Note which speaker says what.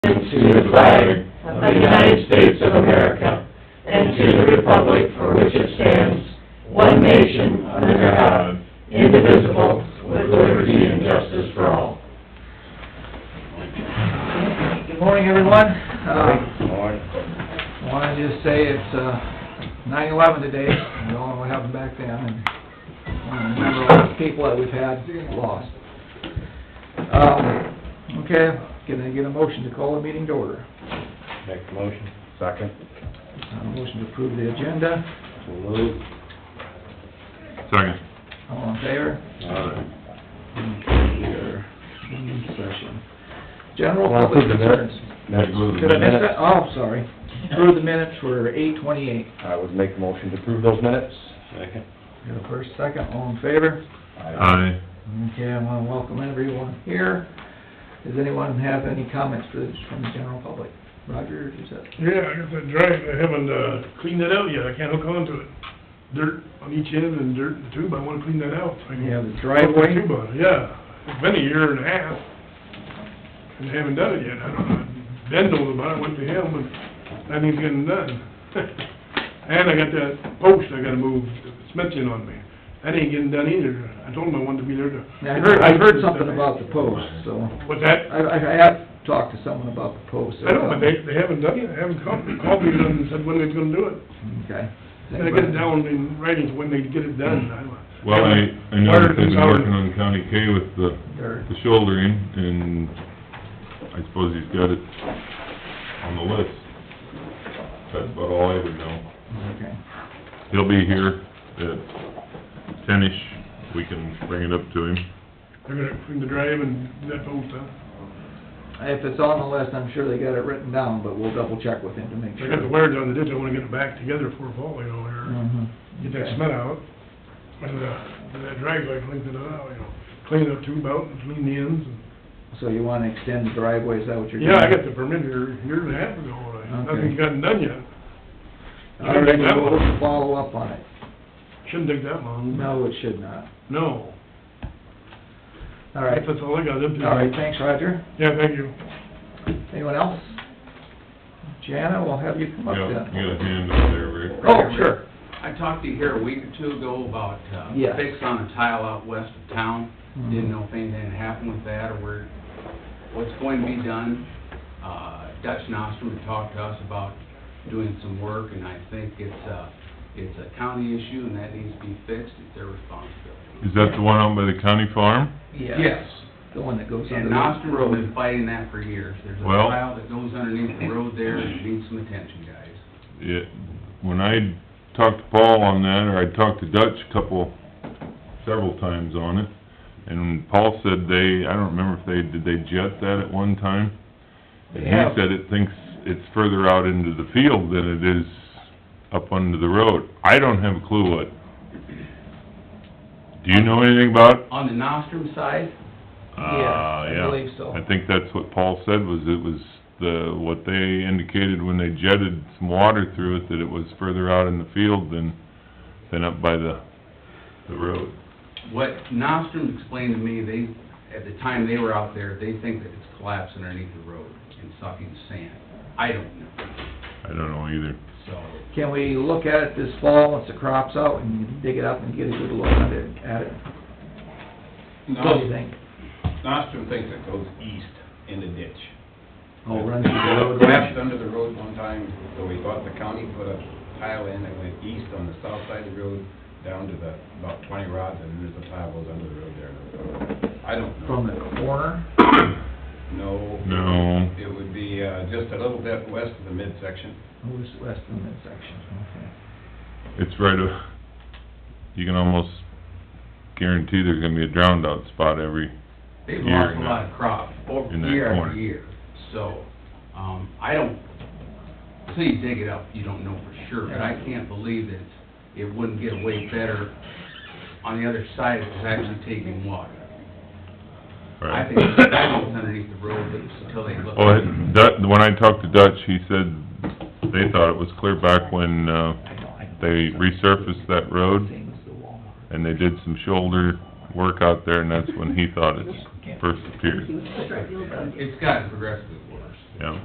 Speaker 1: to the flag of the United States of America and to the republic for which it stands, one nation, under God, indivisible, with liberty and justice for all.
Speaker 2: Good morning, everyone. Uh,
Speaker 3: Morning.
Speaker 2: I want to just say it's uh, 9/11 today, and all what happened back then, and I want to remember all the people that we've had lost. Um, Okay, can I get a motion to call the meeting to order?
Speaker 3: Make the motion. Second.
Speaker 2: Uh, Motion to approve the agenda,
Speaker 3: So moved.
Speaker 4: Second.
Speaker 2: all in favor?
Speaker 3: Uh,
Speaker 2: Here, meeting session. General
Speaker 3: Well,
Speaker 2: public
Speaker 3: approve the minutes.
Speaker 2: concerns.
Speaker 3: Next.
Speaker 2: Did I miss that? Oh, sorry. Approve the minutes for 8:28.
Speaker 3: I would make a motion to approve those minutes. Second.
Speaker 2: Got a first, second, all in favor?
Speaker 4: Aye.
Speaker 2: Okay, I want to welcome everyone here. Does anyone have any comments for, from the general public? Roger, is that?
Speaker 5: Yeah, I guess I drive, I haven't, uh, cleaned that out yet, I can't hook on to it. Dirt on each end and dirt in the tube, I wanna clean that out. so I can
Speaker 2: You have the
Speaker 5: put the
Speaker 2: driveway?
Speaker 5: tube on it. Yeah, it's been a year and a half, and I haven't done it yet, I don't know, Ben knows about it, went to him, and nothing's getting done. And I got that post I gotta move, Smithson on me, that ain't getting done either, I told him I wanted to be there to.
Speaker 2: Now, I heard, I heard something about the post, so,
Speaker 5: What's that?
Speaker 2: I, I have talked to someone about the post.
Speaker 5: I know, but they, they haven't done it, they haven't called, called me and said when they're gonna do it.
Speaker 2: Okay.
Speaker 5: And I get it down in writing when they get it done. I don't-
Speaker 4: Well, I, I know that they've been working on County K with the,
Speaker 2: There,
Speaker 4: the shouldering, and I suppose he's got it on the list. That's about all I would know.
Speaker 2: okay.
Speaker 4: He'll be here at ten-ish, we can bring it up to him.
Speaker 5: They're gonna clean the drive and that whole stuff.
Speaker 2: If it's on the list, I'm sure they got it written down, but we'll double check with him to make
Speaker 5: I got the
Speaker 2: sure.
Speaker 5: wire down the ditch, I wanna get it back together before fall, you know, or
Speaker 2: Mhm.
Speaker 5: get that
Speaker 2: Okay.
Speaker 5: smut out. And, uh, and that drag, I clean it out, you know, clean the tube out and clean the ends. and-
Speaker 2: So you want to extend the driveway, is that what you're doing?
Speaker 5: Yeah, I got the permit here a year and a half ago, and
Speaker 2: Okay.
Speaker 5: nothing's gotten done yet.
Speaker 2: All right, we'll follow up on it.
Speaker 5: Shouldn't take that long.
Speaker 2: No, it should not.
Speaker 5: No.
Speaker 2: All right,
Speaker 5: That's all I got, that's it.
Speaker 2: all right, thanks, Roger.
Speaker 5: Yeah, thank you.
Speaker 2: Anyone else? Jana, we'll have you come
Speaker 4: Yeah,
Speaker 2: up
Speaker 4: you got
Speaker 2: then.
Speaker 4: a hand up there, Rick.
Speaker 2: Oh, sure.
Speaker 6: I talked to you here a week or two ago about uh,
Speaker 2: Yes.
Speaker 6: fix on a tile out west of town.
Speaker 2: Mhm.
Speaker 6: Didn't know if anything had happened with that or where, what's going to be done. Uh, Dutch Nostrum had talked to us about doing some work and I think it's a, it's a county issue and that needs to be fixed. It's their responsibility.
Speaker 4: Is that the one out by the county farm?
Speaker 6: Yes.
Speaker 2: The one that goes under
Speaker 6: And
Speaker 2: the...
Speaker 6: Nostrum has been fighting that for years. There's a
Speaker 4: Well-
Speaker 6: tile that goes underneath the road there and it needs some attention, guys.
Speaker 4: it, when I talked to Paul on that, or I talked to Dutch a couple, several times on it, and Paul said they, I don't remember if they, did they jet that at one time? And he
Speaker 2: Yeah.
Speaker 4: said it thinks it's further out into the field than it is up under the road. I don't have a clue what. Do you know anything about? it?
Speaker 6: On the Nostrum side,
Speaker 4: Ah,
Speaker 2: I
Speaker 4: yeah.
Speaker 2: believe so.
Speaker 4: I think that's what Paul said, was it was the, what they indicated when they jetted some water through it, that it was further out in the field than, than up by the, the road.
Speaker 6: What Nostrum explained to me, they, at the time they were out there, they think that it's collapsed underneath the road and sucking sand. I don't know,
Speaker 4: I don't know either.
Speaker 6: so,
Speaker 2: Can we look at it this fall, once the crop's out, and you can dig it up and get a good look at it, at it? What do you think?
Speaker 7: Nostrum thinks it goes east in the ditch.
Speaker 2: Oh, run through the road?
Speaker 7: Collapsed under the road one time, so we thought the county put a tile in that went east on the south side of the road, down to the, about twenty rods, and there's a tile goes under the road there. I don't know.
Speaker 2: From the corner?
Speaker 7: No.
Speaker 4: No.
Speaker 7: It would be, uh, just a little bit west of the midsection.
Speaker 2: Who's west of the midsection? Okay.
Speaker 4: It's right, a- you can almost guarantee there's gonna be a drowned out spot every,
Speaker 6: they've
Speaker 4: Year
Speaker 6: lost
Speaker 4: in
Speaker 6: a
Speaker 4: that-
Speaker 6: lot of crop, over
Speaker 4: in that
Speaker 6: year
Speaker 4: corner.
Speaker 6: after year. So, um, I don't, until you dig it up, you don't know for sure, but I can't believe that it wouldn't get away better on the other side if it's actually taking water. I
Speaker 4: right?
Speaker 6: think it's it's underneath the road, but until they look.
Speaker 4: Well, it- Dutch, when I talked to Dutch, he said they thought it was clear back when, uh, they resurfaced that road.
Speaker 2: Same as the wall.
Speaker 4: and they did some shoulder work out there, and that's when he thought it first appeared.
Speaker 6: It's gotten progressively